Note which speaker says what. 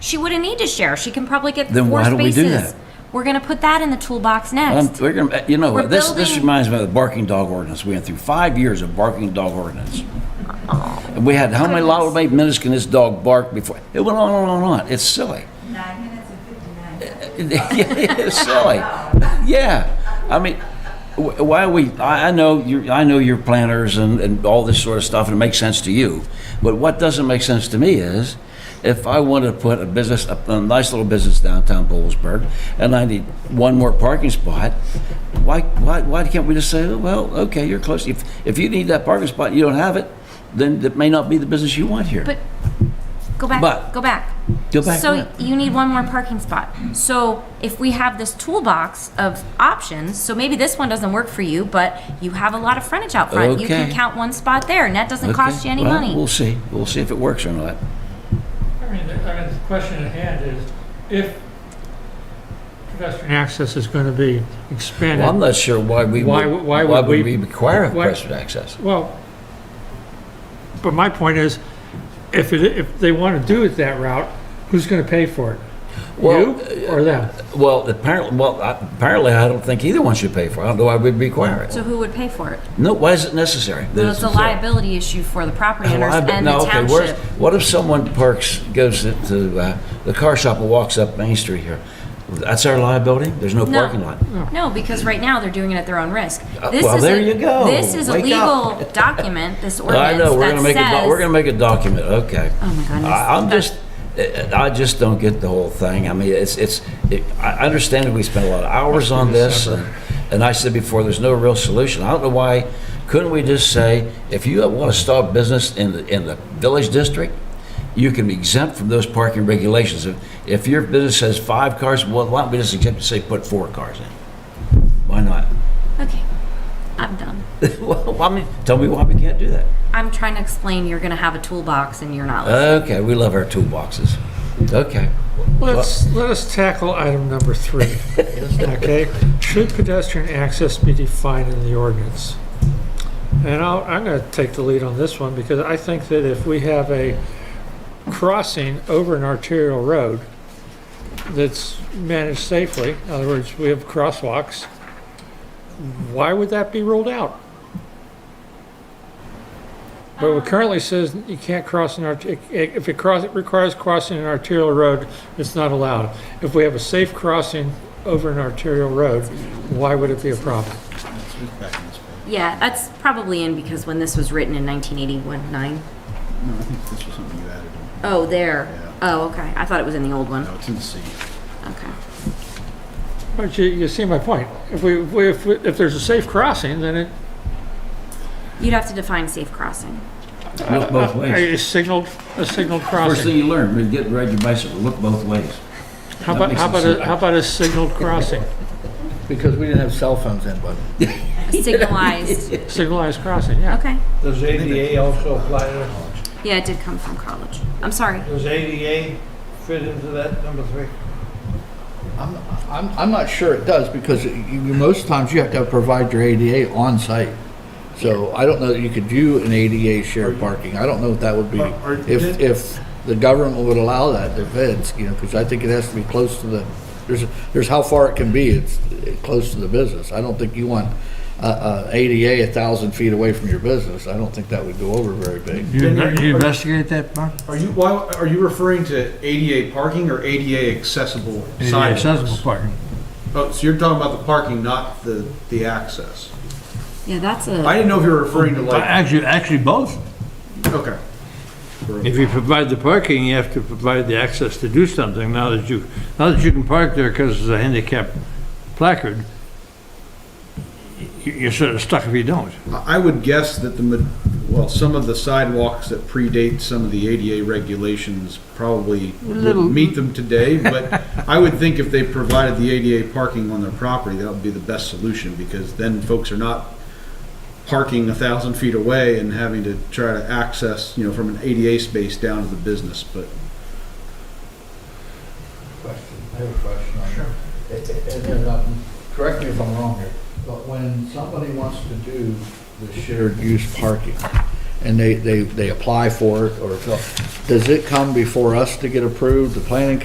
Speaker 1: she wouldn't need to share. She can probably get
Speaker 2: Then
Speaker 1: four
Speaker 2: why do we do
Speaker 1: spaces.
Speaker 2: that?
Speaker 1: We're going to put that in the toolbox
Speaker 2: Um,
Speaker 1: next.
Speaker 2: we're gonna, you know,
Speaker 1: We're
Speaker 2: this, this
Speaker 1: building-
Speaker 2: reminds me of the barking dog ordinance. We went through five years of barking dog ordinance. And we had, how many, lot, how many minutes can this dog bark before? It went on and on and on. It's silly.
Speaker 3: Nine minutes and fifty-nine seconds.
Speaker 2: it's silly. Yeah, I mean, wh- why we? I, I know you. I know you're planners and, and all this sort of stuff, and it makes sense to you. But what doesn't make sense to me is, if I wanted to put a business, a, a nice little business downtown Bowlesburg, and I need one more parking spot, why, why, why can't we just say, oh, well, okay, you're close. If if you need that parking spot, and you don't have it, then it may not be the business you want here.
Speaker 1: But go back.
Speaker 2: But-
Speaker 1: go back.
Speaker 2: Go back
Speaker 1: So
Speaker 2: what?
Speaker 1: you need one more parking spot. So if we have this toolbox of options, so maybe this one doesn't work for you, but you have a lot of frontage out front. You can
Speaker 2: Okay.
Speaker 1: count one spot there, and that doesn't cost
Speaker 2: Okay,
Speaker 1: you any
Speaker 2: well,
Speaker 1: money.
Speaker 2: We'll see. We'll see if it works or not.
Speaker 4: I mean, the, I mean, the question at hand is, if pedestrian access is gonna be
Speaker 2: Well, I'm
Speaker 4: expanded,
Speaker 2: not sure why we
Speaker 4: Why
Speaker 2: would,
Speaker 4: would- why would we-
Speaker 2: require
Speaker 4: why-
Speaker 2: pedestrian access.
Speaker 4: well, but my point is, if it, if they wanna do it that route, who's gonna pay for it?
Speaker 2: Well, uh,
Speaker 4: You or them?
Speaker 2: Well, apparently, well, I- apparently, I don't think either one should pay for it. I don't know why we'd require it.
Speaker 1: So who would pay for it?
Speaker 2: No, why is it necessary? that
Speaker 1: So it's a liability issue for the property owners
Speaker 2: Well, I-
Speaker 1: and
Speaker 2: no,
Speaker 1: the
Speaker 2: okay, where's-
Speaker 1: township.
Speaker 2: What if someone parks, goes to- to uh, the car shop and walks up Main Street here? That's our liability? There's no
Speaker 1: No.
Speaker 2: parking lot? Uh,
Speaker 1: No, because right now they're doing it at their own risk. This
Speaker 2: well,
Speaker 1: is a-
Speaker 2: there you go.
Speaker 1: This is a
Speaker 2: Wake
Speaker 1: legal
Speaker 2: up.
Speaker 1: document, this
Speaker 2: I
Speaker 1: ordinance
Speaker 2: know, we're gonna
Speaker 1: that
Speaker 2: make a, doc- we're
Speaker 1: says.
Speaker 2: gonna make a document, okay.
Speaker 1: Oh my goodness.
Speaker 2: I- I'm just, eh, I I just don't get the whole thing. I mean, it's, it's, it- I I understand that we spent a lot of hours on this, and and I said before, there's no real solution. I don't know why, couldn't we just say, if you want to start business in the, in the village district, you can be exempt from those parking regulations. If- If your business has five cars, well, why don't we just exempt, say, put four cars in? Why not?
Speaker 1: Okay, I'm done.
Speaker 2: Well, I mean, tell me why we can't do that.
Speaker 1: I'm trying to explain you're gonna have a toolbox and you're not. listening.
Speaker 2: Okay, we love our toolboxes. Okay.
Speaker 4: Let's, let us tackle item number three, okay? Should pedestrian access be defined in the ordinance? And I'll, I'm gonna take the lead on this one, because I think that if we have a crossing over an arterial road that's managed safely, in other words, we have crosswalks, why would that be ruled out? But it currently says you can't cross an art, if it cross, it requires crossing an arterial road, it's not allowed. If we have a safe crossing over an arterial road, why would it be a problem?
Speaker 1: Yeah, that's probably in because when this was written in 1981, nine.
Speaker 5: No, I think this was something you added on.
Speaker 1: Oh, there. Oh, okay. I thought it was in the old one.
Speaker 5: No, it's in the C.
Speaker 1: Okay.
Speaker 4: But you, you see my point. If we, if we- if, we- if there's a safe crossing, then it,
Speaker 1: You'd have to define safe crossing.
Speaker 2: Look both ways.
Speaker 4: a signaled, a signaled
Speaker 2: First thing
Speaker 4: crossing.
Speaker 2: you learn when you get ride your bicycle, look both ways.
Speaker 4: How about, how about, a- how about a signaled crossing,
Speaker 6: Because we didn't have cell phones then, but
Speaker 1: A signalized.
Speaker 4: signalized crossing, yeah.
Speaker 1: Okay.
Speaker 7: Does ADA also apply to,
Speaker 1: Yeah, it did come from college. I'm sorry.
Speaker 7: does ADA fit into that number three?
Speaker 6: I'm, I'm, I'm not sure it does because you, you- most times you have to provide your ADA on site. So I don't know that you could do an ADA shared parking. I don't know if that would be,
Speaker 7: Are- are-
Speaker 6: if, if the government would allow that, the feds, you know, because I think it has to be close to the, there's, there's how far it can be, it's eh, close to the business. I don't think you want, uh, uh, ADA a thousand feet away from your business. I don't think that would go over very big.
Speaker 8: You
Speaker 7: Then
Speaker 8: inve-
Speaker 7: are-
Speaker 8: you
Speaker 7: are-
Speaker 8: investigate that, Mark?
Speaker 5: Are you, why, are you referring to ADA parking or ADA accessible
Speaker 8: ADA
Speaker 5: sidewalks?
Speaker 8: Accessible parking.
Speaker 5: Oh, so you're talking about the parking, not the, the access.
Speaker 1: Yeah, that's
Speaker 5: I
Speaker 1: a.
Speaker 5: didn't know if you were referring to like,
Speaker 8: Actually, actually both.
Speaker 5: okay.
Speaker 8: If you provide the parking, you have to provide the access to do something now that you, now that you can park there because there's a handicap placard. you- You're sort of stuck if you don't.
Speaker 5: I I would guess that the, ma- well, some of the sidewalks that predate some of the ADA regulations probably
Speaker 8: Little-
Speaker 5: would meet them today, but I would think if they provided the ADA parking on their property, that would be the best solution, because then folks are not parking a thousand feet away and having to try to access, you know, from an ADA space down to the business, but
Speaker 6: question, I have a question on it. Sure. And, and, um, correct me if I'm wrong here, but when somebody wants to do the shared use parking, and they, they, they apply for it, or, does it come before us to get approved, the planning